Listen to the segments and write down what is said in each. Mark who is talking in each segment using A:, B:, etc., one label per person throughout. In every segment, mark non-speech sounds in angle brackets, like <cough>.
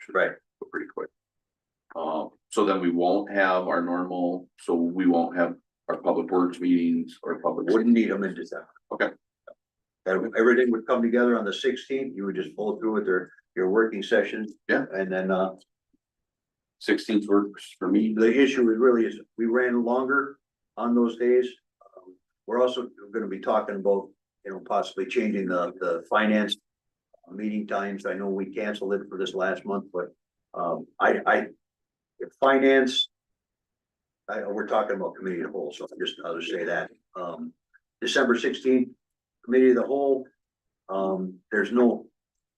A: should
B: Right.
A: go pretty quick.
B: Um, so then we won't have our normal, so we won't have our public works meetings or public.
C: Wouldn't need them in December.
B: Okay.
C: And everything would come together on the sixteenth, you would just pull through with your, your working sessions.
B: Yeah.
C: And then, uh,
B: Sixteenth works for me.
C: the issue is really is, we ran longer on those days. Um, We're also gonna be talking about, you know, possibly changing the, the finance meeting times. I know we canceled it for this last month, but, um, I, I, if finance, I, we're talking about committee of the whole, so I'm just, I'll just say that. Um, December sixteenth, committee of the whole, um, there's no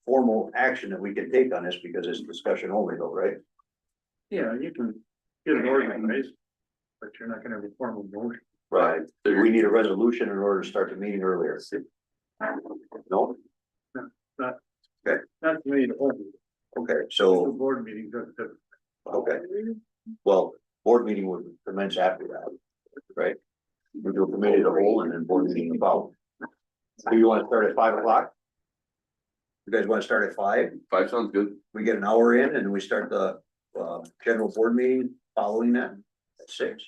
C: formal action that we can take on this because it's discussion only though, right?
D: Yeah, you can get it organized, but you're not gonna have a formal vote.
C: Right. We need a resolution in order to start the meeting earlier. No,
D: Not committee to hold,
C: okay,
D: the
C: so,
D: board meeting doesn't.
C: okay, well, board meeting would commence after that, right? We do a committee of the whole and then board meeting about. Do you wanna start at five o'clock? You guys wanna start at five?
B: Five sounds good.
C: We get an hour in and we start the, uh, general board meeting following that at six.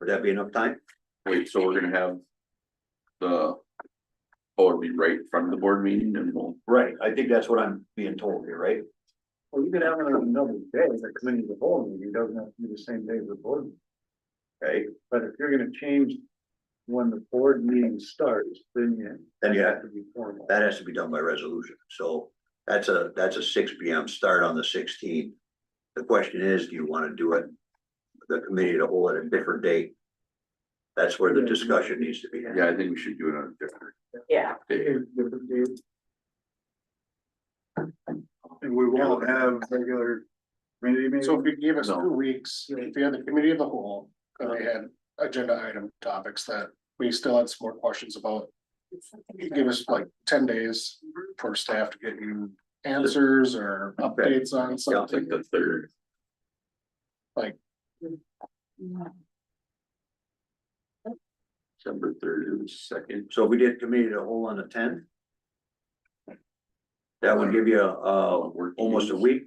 C: Would that be enough time?
B: Wait, so we're gonna have the. Oh, it'll be right in front of the board meeting and we'll,
C: Right, I think that's what I'm being told here, right?
D: Well, you could have it on another day, the committee of the whole meeting doesn't have to be the same day as the board. meeting.
C: Okay,
D: But if you're gonna change when the board meeting starts, then you.
C: Then you have-
D: to be formal.
C: that has to be done by resolution, so that's a, that's a six P M start on the sixteenth. The question is, do you wanna do it, the committee to hold it a different date? That's where the discussion needs to be.
B: yeah, I think we should do it on a different
E: Yeah,
B: day.
D: And we won't have regular committee meetings.
F: So if you gave us
B: No.
F: two weeks, if you had the committee of the whole, and they had agenda item topics that we still had some more questions about. You give us like ten days for staff to get you answers or updates on
B: It's like
F: something.
B: the third, December third or the second.
C: So if we did committee to hold on the tenth. That would give you, uh, almost a week.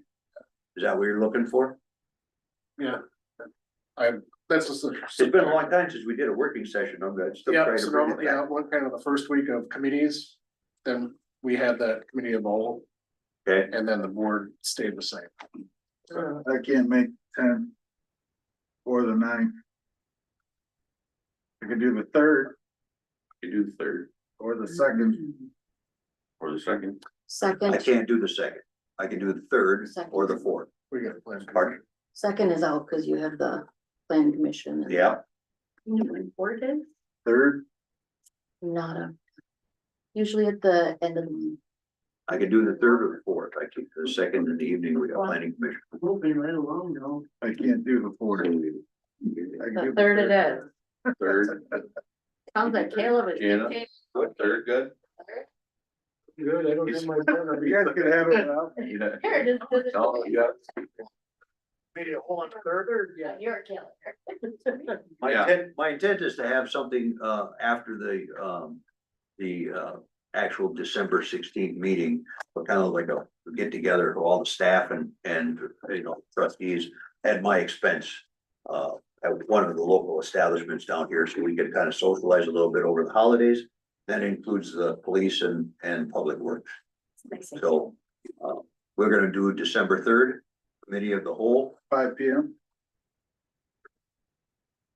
C: Is that what you're looking for?
F: That's just. a-
C: It's been a long time since we did a working session, I'm gonna still
F: Yeah,
C: try to
F: so,
C: bring
F: no,
C: it
F: yeah,
C: back.
F: one kind of the first week of committees, then we had that committee of the whole,
C: Okay,
F: and then the board stayed the same.
D: I can't make ten. Or the ninth. I could do the third
B: We do the third
D: or the second.
B: or the second.
C: I
E: second,
C: can't do the second. I can do the third or the fourth.
F: We got a plan.
C: Pardon?
E: second is out because you have the plan commission. and-
C: Yeah,
E: Important?
D: Third,
E: Not a. Usually at the end of the month.
C: I could do the third or the fourth, I keep the second in the evening, we got planning commission.
D: moving right along, no. I can't do the fourth.
E: The third it is.
B: Third,
E: Sounds like Caleb is.
B: Jana? what, third, good?
D: Good, I don't
B: have
D: my. You guys could have it now.
B: Yeah.
E: Here, just. do the-
B: Oh, yeah.
D: Maybe a whole on third or, yeah.
E: You're Caleb. <laughs>
C: My
B: Yeah.
C: intent, my intent is to have something uh after the um, the uh actual December sixteenth meeting. But kind of like a get together of all the staff and and, you know, trustees at my expense. Uh, at one of the local establishments down here, so we could kind of socialize a little bit over the holidays. That includes the police and and public works. So, uh, we're gonna do December third, committee of the whole.
D: Five P M.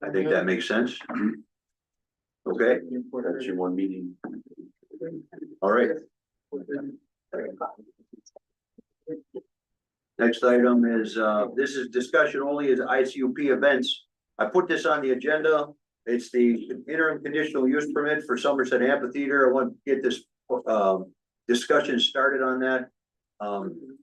C: I think that makes sense. Mm-hmm. Okay,
B: That's your one meeting.
C: all right. Next item is, uh, this is discussion only is ICUP events. I put this on the agenda. It's the interim conditional use permit for Somerset Amphitheater. I want to get this, um, discussion started on that. Um,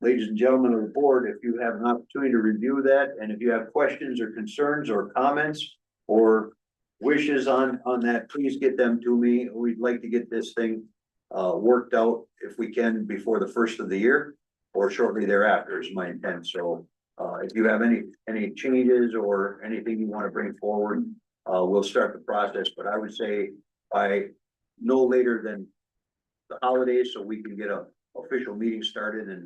C: ladies and gentlemen of the board, if you have an opportunity to review that, and if you have questions or concerns or comments or wishes on, on that, please get them to me. We'd like to get this thing, uh, worked out if we can before the first of the year or shortly thereafter is my intent, so. Uh, if you have any, any changes or anything you wanna bring forward, uh, we'll start the process, but I would say by no later than. The holidays, so we can get a official meeting started and